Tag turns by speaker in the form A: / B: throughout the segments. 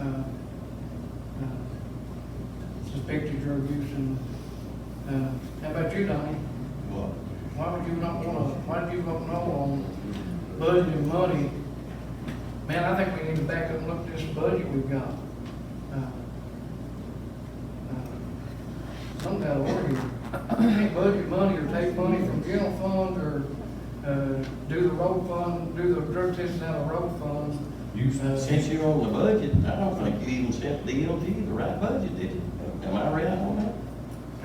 A: uh, inspected uh, drug use and, uh, how about you, Donnie?
B: Well,
A: Why would you not wanna, why do you not know on budgeting money? Man, I think we need to back up and look at this budget we've got. Uh, uh, Some kind of order. We can't budget money or take money from general fund or, uh, do the road fund, do the drug testing out of road funds.
B: you, since you're on the budget, I don't think you even set DOT the right budget, did you? Am I right on that?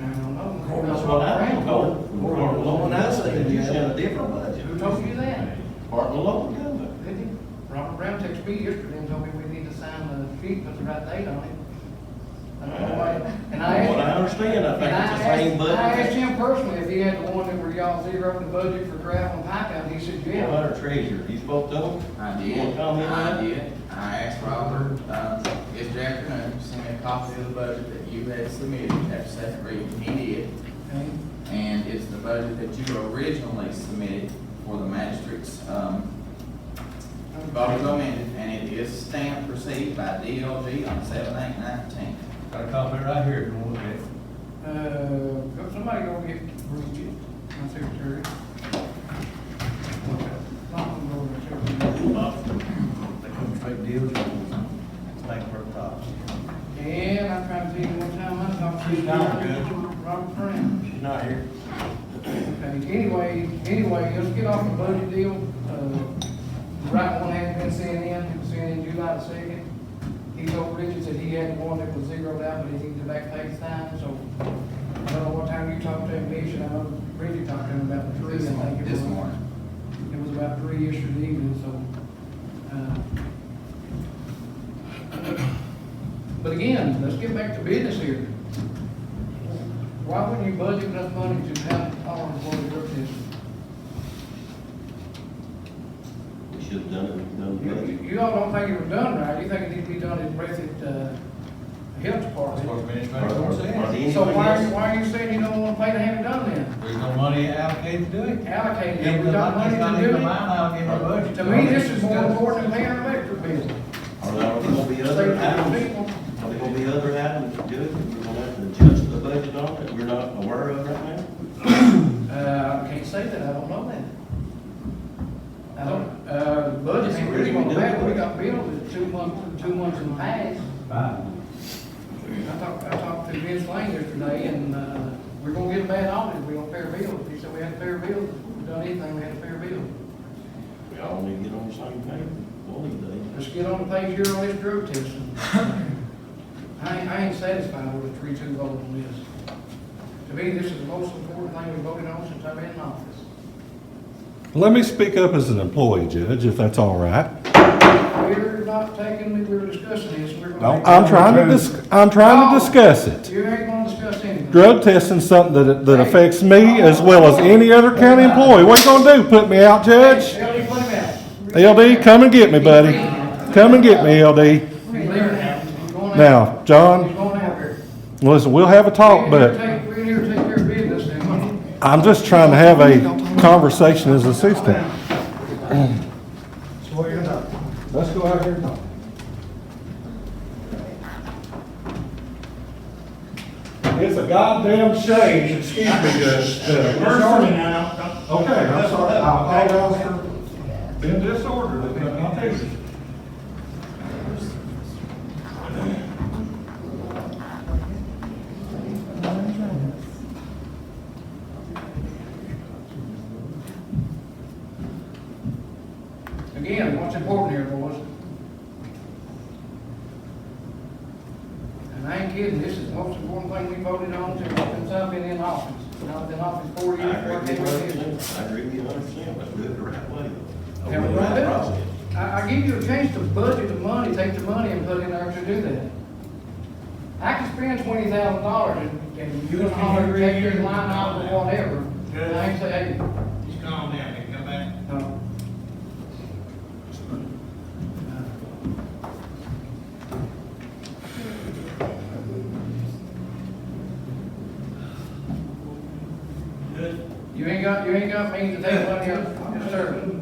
A: I don't know.
B: That's what I'm told. From Martin Malone, I said you set a different
A: Who
B: budget.
A: told you that?
B: Martin Malone government.
A: Did he? Robert Brown texted me yesterday and told me we need to sign the sheet, put the right date on it. I don't know why. And I
B: What I
A: asked,
B: understand, I
A: and I
B: think it's the same
A: asked, I asked
B: budget.
A: him personally if he had the one that where y'all zeroed the budget for gravel and pipe out, and he said,
B: What
A: yeah.
B: about our treasurer? You spoke to him?
C: I
B: You wanna
C: did,
B: comment on that?
C: I did, I asked Robert, um, yesterday afternoon, to send me a copy of the budget that you had submitted after second reading, he did.
A: And
C: And it's the budget that you originally submitted for the magistrate's, um, vote was amended, and it is stamped received by DLG on seven eight nineteen.
D: Got a copy right here, if you want to look at it.
A: Uh, somebody go get Bruce, my secretary. Not gonna go over to secretary.
D: They come straight deals, it's like for tops.
A: And I tried to see one time, I talked to.
D: She's not good.
A: Robert Brown.
D: She's not here.
A: Okay, anyway, anyway, let's get off the budget deal. Uh, the Right one hadn't been sent in, it was sent in July the second. He told Richard that he had one that was zeroed out, but he needed to back pay time, so. I don't know what time you talked to him, Mitch, and I know Richard talked to him about three, I
C: This
A: think it
C: morning,
A: was.
C: this morning.
A: It was about three yesterday evening, so. uh, But again, let's get back to business here. Why wouldn't you budget enough money to have all employee work this?
B: We should have done it, done the
A: You,
B: budget.
A: you- you all don't think it was done right, you think it needs to be done in Breathitt, uh, Health
D: That's what
A: Department.
D: administrator
B: Or- or-
D: was
B: or the-
D: saying.
B: anybody
A: So why, are you-
B: else?
A: why are you saying you don't wanna pay to have it done then?
D: There's no money allocated to do it.
A: Allocate it,
D: Even
A: we
D: the
A: got
D: money's not
A: money to
D: even
A: do
D: a line
A: it.
D: item in the budget.
A: To me, this is more important than paying an electric bill.
B: Are there gonna be other items,
A: People-
B: are there gonna be other items to do it, that we're gonna have to adjust the budget on that we're not aware of right now?
A: Uh, I can't say that, I don't know that. I don't, uh, the budget ain't really on that, we got bills that's two months, two months in past. I talked, I talked to Vince Lane yesterday, and, uh, we're gonna get a bad audit, if we don't pay our bills. He said we had to pay our bills, we done anything, we had to pay our bills.
B: We all need to get on the same page, one of these days.
A: Let's get on the page here on this drug testing. I, ain't- I ain't satisfied with a three-two vote on this. To me, this is the most important thing we voted on since I've been in office.
E: Let me speak up as an employee, Judge, if that's all right.
A: We're not taking, we're discussing this, we're. gonna-
E: I'm trying to dis, I'm trying to discuss it.
A: You ain't gonna discuss anything.
E: Drug testing's something that, that affects me as well as any other county employee. What you gonna do, put me out, Judge?
A: Ellie, put him out.
E: LD, come and get me, buddy. Come and get me, LD.
A: Leave him out. He's going out.
E: Now,
A: He's
E: John,
A: going out here.
E: listen, we'll have a
A: We're
E: talk, but
A: here to take- We're here to take care of business now.
E: I'm just trying to have a conversation as a citizen.
F: So what are you gonna do?
E: Let's go out here and talk. It's a goddamn shame, excuse me, the, the person.
F: now.
E: Okay, I'm sorry, I apologize for being disorderly, but I'll take it.
A: Again, what's important here, boys? And I ain't kidding, this is the most important thing we voted on since since I've been in office. And I've been in office four
B: I
A: years,
B: agree with
A: working with you.
B: you 100%. I agree with you 100%, but do it the right way. though.
A: Yeah,
B: Over the
A: right.
B: right process.
A: I, I give you a chance to budget the money, take the money and put it in there to do that. I can spend twenty thousand dollars and, and you can holler, take your line out or whatever. And I ain't say, hey,
F: He's gone now, he come back.
A: no. You ain't got, you ain't got means to take money out of your service.